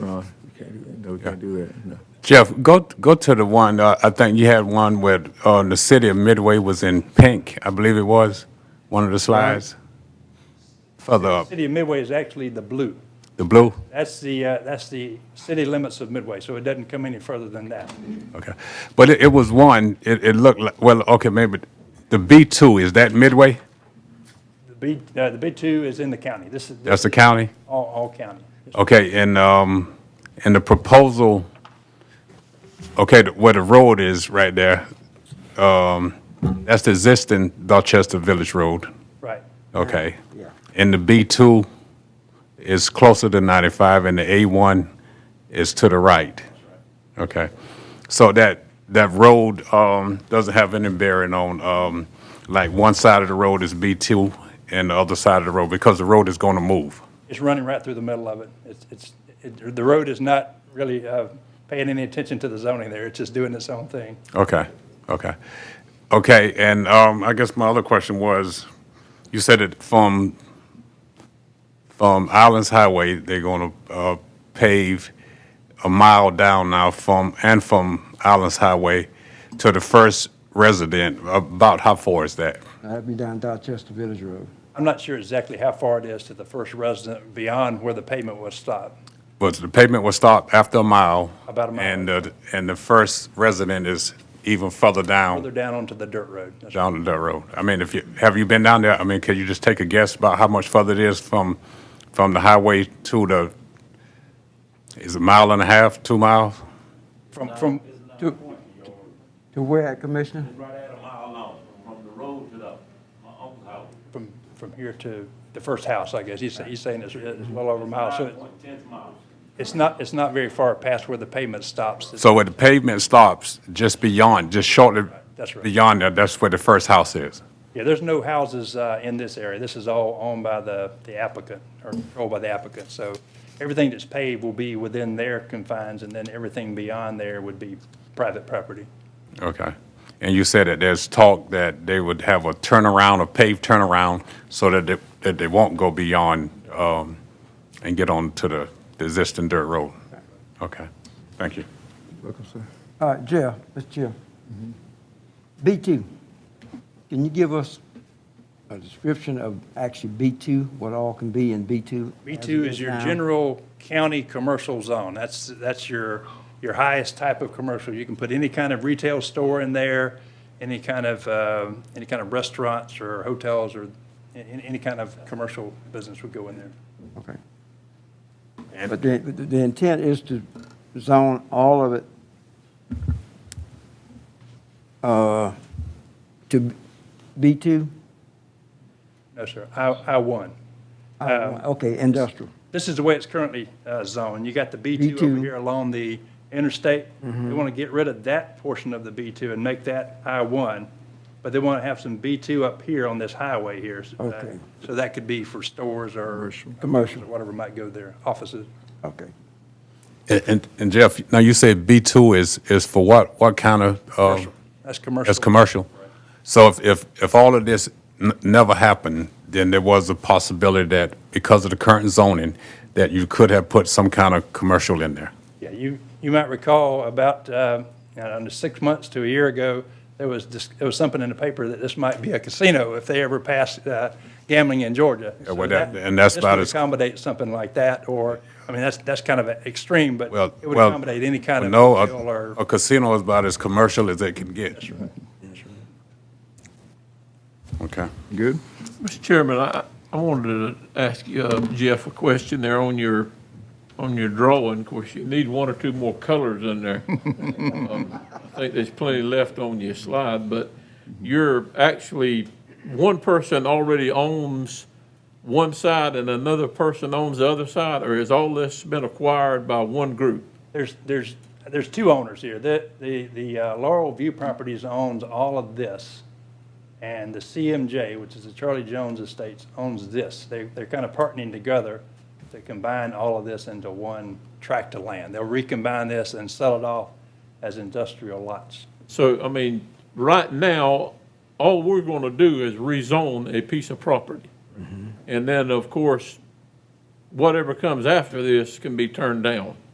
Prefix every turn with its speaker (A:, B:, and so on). A: we can't do that, no.
B: Jeff, go, go to the one, uh, I think you had one where, uh, the city of Midway was in pink, I believe it was, one of the slides. Further up,
C: City of Midway is actually the blue.
B: the blue?
C: That's the, uh, that's the city limits of Midway, so it doesn't come any further than that.
B: Okay. But it, it was one, it, it looked like, well, okay, maybe, the B two, is that Midway?
C: The B, uh, the B2 is in the county. This is.
B: That's the county?
C: All, all county.
B: Okay, and, um, and the proposal, okay, the- where the road is right there, um, that's the existing Dorchester Village Road,
C: Right.
B: okay? And the B two is closer to ninety-five, and the A one is to the right. Okay, so that, that road, um, doesn't have any bearing on, um, like, one side of the road is B two and the other side of the road, because the road is gonna move.
C: It's running right through the middle of it. It's, it's, it- the road is not really uh, paying any attention to the zoning there. It's just doing its own thing.
B: Okay, okay. Okay, and um, I guess my other question was, you said it from, from Islands Highway, they're going to pave a mile down now from, and from Islands Highway to the first resident. About how far is that?
D: That'd be down Dorchester Village Road.
C: I'm not sure exactly how far it is to the first resident beyond where the pavement was stopped.
B: Was the pavement was stopped after a mile?
C: About a mile.
B: And, the- and the first resident is even further
C: Further
B: down,
C: down onto the dirt road. That's-
B: down the road. I mean, if you, have you been down there? I mean, could you just take a guess about how much further it is from, from the highway to the, is it a mile and a half, two miles?
C: From, from,
D: To to where, Commissioner?
E: Right at a mile long, from the road to the, my uncle's house.
C: from, from here to the first house, I guess. He's, he's saying it's, it's well over a mile. Oh, So
E: Nine
C: it-
E: point ten miles.
C: it's not, it's not very far past where the pavement stops.
B: So where the pavement stops, just beyond, just shortly
C: That's right.
B: beyond that, that's where the first house is.
C: Yeah, there's no houses uh, in this area. This is all owned by the the applicant, or controlled by the applicant. So everything that's paved will be within their confines, and then everything beyond there would be private property.
B: Okay. And you said that there's talk that they would have a turnaround, a paved turnaround, so that they, that they won't go beyond, um, and get on to the the existing dirt road. Okay, thank you.
A: Welcome, sir.
D: All right, Jeff, Mr. Uh, Chair. B2, can you give us a description of actually B2, what all can be in B2? as it
C: B2 is your
D: now?
C: general county commercial zone. That's, that's your, your highest type of commercial. You can put any kind of retail store in there, any kind of, uh, any kind of restaurants or hotels or a- any any kind of commercial business would go in there.
D: Okay. But the, the the intent is to zone all of it uh, to B2?
C: No, sir. I, I one. Uh,
D: Okay, industrial.
C: This is the way it's currently uh, zoned. You got the B2 over
D: B2.
C: here along the interstate.
D: Mm-hmm.
C: They want to get rid of that portion of the B2 and make that I-1, but they want to have some B2 up here on this highway here. so that-
D: Okay.
C: So that could be for stores or
D: Commercial.
C: or whatever might go there, offices.
D: Okay.
B: And- And, and Jeff, now you said B two is, is for what, what kind of, uh,
C: That's commercial.
B: that's commercial? So if, if, if all of this n- never happened, then there was a possibility that because of the current zoning, that you could have put some kind of commercial in there?
C: Yeah, you, you might recall about, uh, I don't know, six months to a year ago, there was, dis- there was something in the paper that this might be a casino if they ever pass uh, gambling in Georgia. So
B: well, that- and that's
C: this
B: about
C: would
B: as-
C: Accommodate something like that, or, I mean, that's, that's kind of a extreme, but
B: Well,
C: it would
B: well,
C: accommodate any kind of.
B: No, uh, a-
C: deal or-
B: a casino is about as commercial as it can get. Okay.
A: Good?
F: Mr. Chairman, I, I wanted to ask you, uh, Jeff a question there on your, on your drawing. Of course, you need one or two more colors in there. Um, I think there's plenty left on your slide, but you're actually, one person already owns one side and another person owns the other side, or has all this been acquired by one group?
C: There's, there's, there's two owners here. The, the, the uh, Laurel View Properties owns all of this. And the CMJ, which is the Charlie Jones Estates, owns this. They, they're kind of partnering together to combine all of this into one tract of land. They'll recombine this and sell it off as industrial lots.
F: So, I mean, right now, all we're gonna do is rezone a piece of property. And then, of course, whatever comes after this can be turned down.